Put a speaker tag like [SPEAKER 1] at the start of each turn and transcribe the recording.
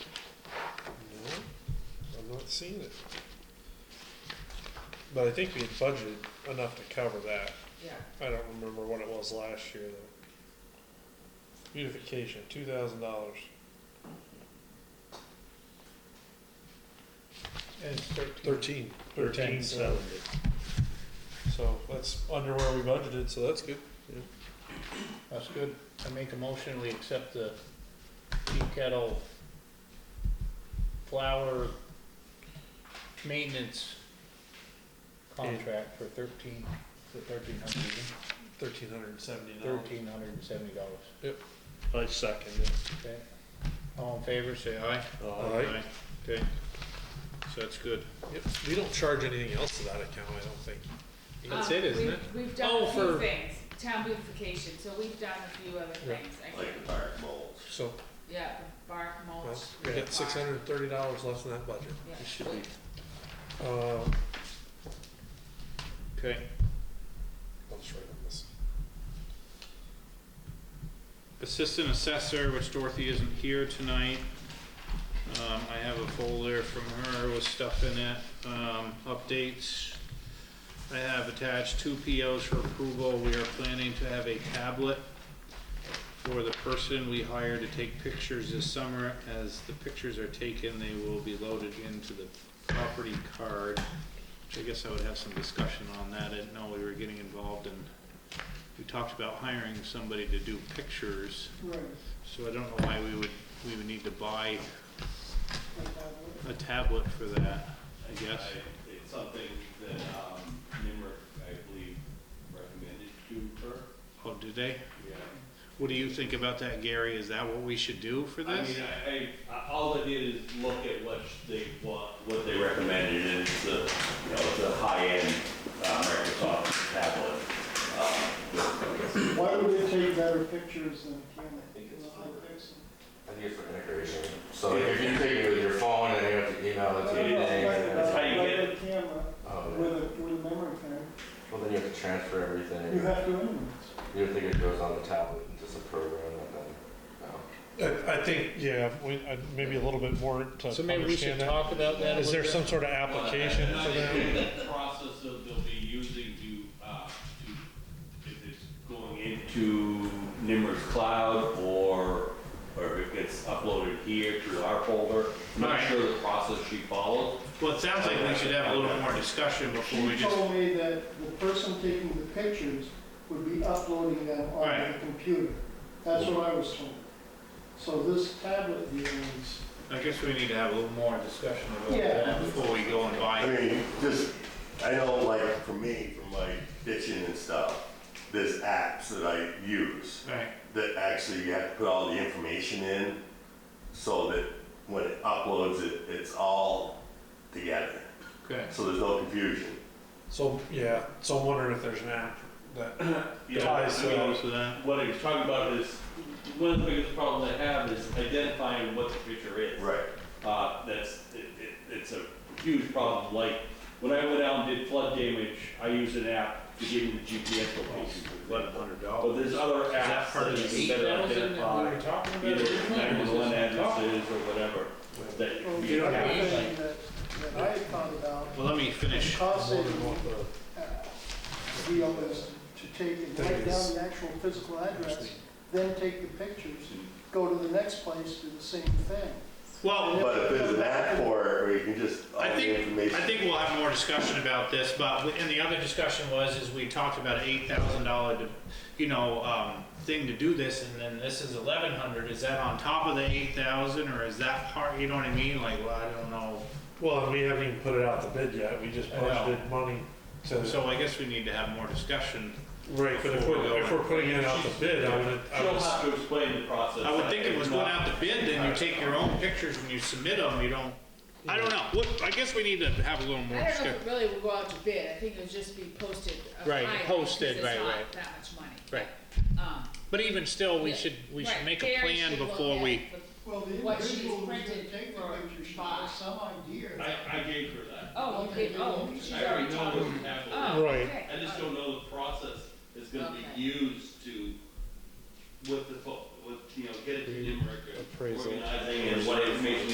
[SPEAKER 1] seen it. But I think we had budgeted enough to cover that.
[SPEAKER 2] Yeah,
[SPEAKER 1] I don't remember what it was last year though. Beautification, two thousand dollars.
[SPEAKER 3] And it's thirteen.
[SPEAKER 1] Thirteen.
[SPEAKER 3] Thirteen
[SPEAKER 1] so-
[SPEAKER 3] seventy.
[SPEAKER 1] So that's under where we budgeted, so that's good.
[SPEAKER 3] That's good. I make a motion, we accept the tea kettle flower maintenance contract for thirteen, for thirteen hundred,
[SPEAKER 1] Thirteen hundred and seventy dollars.
[SPEAKER 3] thirteen hundred and seventy dollars,
[SPEAKER 4] I second it.
[SPEAKER 3] okay? All in favor, say aye.
[SPEAKER 1] Aye.
[SPEAKER 3] Okay, so that's good.
[SPEAKER 1] Yep, we don't charge anything else to that account, I don't think.
[SPEAKER 3] That's
[SPEAKER 2] Um,
[SPEAKER 3] it, isn't
[SPEAKER 2] we've-
[SPEAKER 3] it?
[SPEAKER 2] We've done
[SPEAKER 3] Oh,
[SPEAKER 2] a few
[SPEAKER 3] for-
[SPEAKER 2] things, town beautification, so we've done a few other
[SPEAKER 1] Yeah.
[SPEAKER 2] things, I
[SPEAKER 4] Like
[SPEAKER 2] think,
[SPEAKER 4] the fire moles.
[SPEAKER 1] So,
[SPEAKER 2] yeah, the bark mulch.
[SPEAKER 1] well, we
[SPEAKER 2] bark,
[SPEAKER 1] got six hundred and thirty dollars left in that budget.
[SPEAKER 2] yeah.
[SPEAKER 4] It should be,
[SPEAKER 1] Uh,
[SPEAKER 3] Okay,
[SPEAKER 1] I'll just write on this.
[SPEAKER 5] Assistant Assessor, which Dorothy isn't here tonight. Um, I have a folder from her with stuff in it, um, updates. I have attached two POs for approval. We are planning to have a tablet for the person we hire to take pictures this summer. As the pictures are taken, they will be loaded into the property card. Which I guess I would have some discussion on that. I didn't know we were getting involved in we talked about hiring somebody to do pictures,
[SPEAKER 6] Right,
[SPEAKER 5] so I don't know why we would, we would need to buy
[SPEAKER 6] like that would.
[SPEAKER 5] a tablet for that, I guess.
[SPEAKER 4] I- It's something that, um, Nimmer, I believe, recommended to her.
[SPEAKER 5] Oh, do they?
[SPEAKER 4] Yeah.
[SPEAKER 5] What do you think about that, Gary? Is that what we should do for
[SPEAKER 4] I
[SPEAKER 5] this?
[SPEAKER 4] mean, I, I, all I did is look at what they want, what they recommended, and it's a, you know, it's a high-end, uh, Microsoft tablet. Uh, with-
[SPEAKER 6] Why would they take better pictures than a camera?
[SPEAKER 4] I think it's
[SPEAKER 6] Well,
[SPEAKER 4] for-
[SPEAKER 6] guess-
[SPEAKER 7] I think it's for integration. So if you take it with your phone and you have to email
[SPEAKER 6] I
[SPEAKER 7] it to
[SPEAKER 6] don't
[SPEAKER 7] your
[SPEAKER 6] know,
[SPEAKER 7] thing,
[SPEAKER 6] like-
[SPEAKER 7] and
[SPEAKER 4] That's
[SPEAKER 7] then-
[SPEAKER 4] how you
[SPEAKER 6] like
[SPEAKER 4] get it.
[SPEAKER 6] a camera
[SPEAKER 7] oh, yeah.
[SPEAKER 6] with a, with a memory card,
[SPEAKER 7] well then you have to transfer
[SPEAKER 6] you
[SPEAKER 7] everything.
[SPEAKER 6] have to image.
[SPEAKER 7] You would think it goes on the tablet and just a program and then, no.
[SPEAKER 1] I, I think, yeah, we, I, maybe a little bit more to
[SPEAKER 3] so maybe we should
[SPEAKER 1] understand that.
[SPEAKER 3] talk about that a
[SPEAKER 1] Is
[SPEAKER 3] little
[SPEAKER 1] there
[SPEAKER 3] bit?
[SPEAKER 1] some sort of application
[SPEAKER 4] Well,
[SPEAKER 1] for
[SPEAKER 4] and I
[SPEAKER 1] that?
[SPEAKER 4] think the Process of they'll be using to, uh, to, if it's going into Nimmer's cloud or, or if it gets uploaded here to our folder. I'm not
[SPEAKER 5] Right.
[SPEAKER 4] sure the process she followed.
[SPEAKER 5] Well, it sounds like we should have a little more discussion before we
[SPEAKER 6] She
[SPEAKER 5] just,
[SPEAKER 6] told me that the person taking the pictures would be uploading them on the
[SPEAKER 5] Right.
[SPEAKER 6] computer. That's what I was told. So this tablet here is,
[SPEAKER 5] I guess we need to have a little more discussion about
[SPEAKER 6] Yeah.
[SPEAKER 5] that before we go and
[SPEAKER 8] I
[SPEAKER 5] buy.
[SPEAKER 8] mean, just, I know like for me, for my ditching and stuff, there's apps that I use
[SPEAKER 5] Right,
[SPEAKER 8] that actually you have to put all the information in so that when it uploads it, it's all together.
[SPEAKER 5] okay.
[SPEAKER 8] So there's no confusion.
[SPEAKER 1] So, yeah, so I'm wondering if there's an app that,
[SPEAKER 4] Yeah,
[SPEAKER 1] I
[SPEAKER 4] I
[SPEAKER 1] see.
[SPEAKER 4] mean,
[SPEAKER 5] So that,
[SPEAKER 4] What I was talking about is, one of the biggest problems I have is identifying what the picture is.
[SPEAKER 8] Right.
[SPEAKER 4] Uh, that's, it, it, it's a huge problem. Like, when I went out and did flood damage, I used an app to give me the GPS location.
[SPEAKER 5] eleven hundred
[SPEAKER 4] But
[SPEAKER 5] dollars.
[SPEAKER 4] there's other
[SPEAKER 5] that
[SPEAKER 4] apps
[SPEAKER 5] part
[SPEAKER 4] that
[SPEAKER 5] of the
[SPEAKER 4] you
[SPEAKER 5] heat
[SPEAKER 4] can better
[SPEAKER 3] That was in that we
[SPEAKER 4] identify,
[SPEAKER 3] were talking about
[SPEAKER 4] either
[SPEAKER 3] originally, was this
[SPEAKER 4] nine-one-one
[SPEAKER 3] talk?
[SPEAKER 4] addresses or whatever, that you can
[SPEAKER 6] well,
[SPEAKER 4] be.
[SPEAKER 6] the
[SPEAKER 5] have
[SPEAKER 6] other
[SPEAKER 5] to
[SPEAKER 6] thing that, that I thought about,
[SPEAKER 5] Well, let me finish.
[SPEAKER 6] cost saving, uh, deal is to take, and write down the actual physical address, then take the pictures, go to the next place, do the same thing.
[SPEAKER 5] Well,
[SPEAKER 8] But if there's an app for it, or you can just, all
[SPEAKER 5] I
[SPEAKER 8] the
[SPEAKER 5] think, I
[SPEAKER 8] information.
[SPEAKER 5] think we'll have more discussion about this, but, and the other discussion was, is we talked about eight thousand dollar, you know, um, thing to do this, and then this is eleven hundred, is that on top of the eight thousand, or is that part, you know what I mean, like, well, I don't know.
[SPEAKER 1] well, and we haven't even put it out the bid yet, we just
[SPEAKER 5] I know.
[SPEAKER 1] budgeted money to,
[SPEAKER 5] So I guess we need to have more discussion.
[SPEAKER 1] right, but if we're, if we're putting it out the bid, I would, I
[SPEAKER 4] She'll
[SPEAKER 1] would
[SPEAKER 4] have to explain the process.
[SPEAKER 5] I would think it was
[SPEAKER 4] not-
[SPEAKER 5] going out to bid, then you take your own pictures and you submit them, you don't, I don't know, what, I guess we need to have a little
[SPEAKER 2] I
[SPEAKER 5] more
[SPEAKER 2] don't know
[SPEAKER 5] discussion.
[SPEAKER 2] if it really would go out to bid, I think it would just be posted. up
[SPEAKER 5] Right,
[SPEAKER 2] higher,
[SPEAKER 5] posted,
[SPEAKER 2] because it's
[SPEAKER 5] right,
[SPEAKER 2] not
[SPEAKER 5] right.
[SPEAKER 2] That much money.
[SPEAKER 5] Right.
[SPEAKER 2] Um,
[SPEAKER 5] But even still, we
[SPEAKER 2] yeah,
[SPEAKER 5] should, we should
[SPEAKER 2] right,
[SPEAKER 5] make a
[SPEAKER 2] Barry
[SPEAKER 5] plan
[SPEAKER 2] should look
[SPEAKER 5] before
[SPEAKER 2] at
[SPEAKER 5] we,
[SPEAKER 2] the-
[SPEAKER 6] Well, the
[SPEAKER 2] What she's
[SPEAKER 6] individual who's going to
[SPEAKER 2] printed
[SPEAKER 6] take the
[SPEAKER 2] for
[SPEAKER 6] picture should
[SPEAKER 2] buy.
[SPEAKER 6] have some idea.
[SPEAKER 4] I, I gave her that.
[SPEAKER 2] Oh, you did, oh. she's
[SPEAKER 4] I already
[SPEAKER 2] already
[SPEAKER 4] know
[SPEAKER 2] talked.
[SPEAKER 4] what we have.
[SPEAKER 2] Oh,
[SPEAKER 1] Right.
[SPEAKER 2] okay.
[SPEAKER 4] I just don't know the process is gonna
[SPEAKER 2] Okay.
[SPEAKER 4] be used to, with the, fo- with, you know, get it to Nimerick,
[SPEAKER 1] Appraisal.
[SPEAKER 4] organizing and what information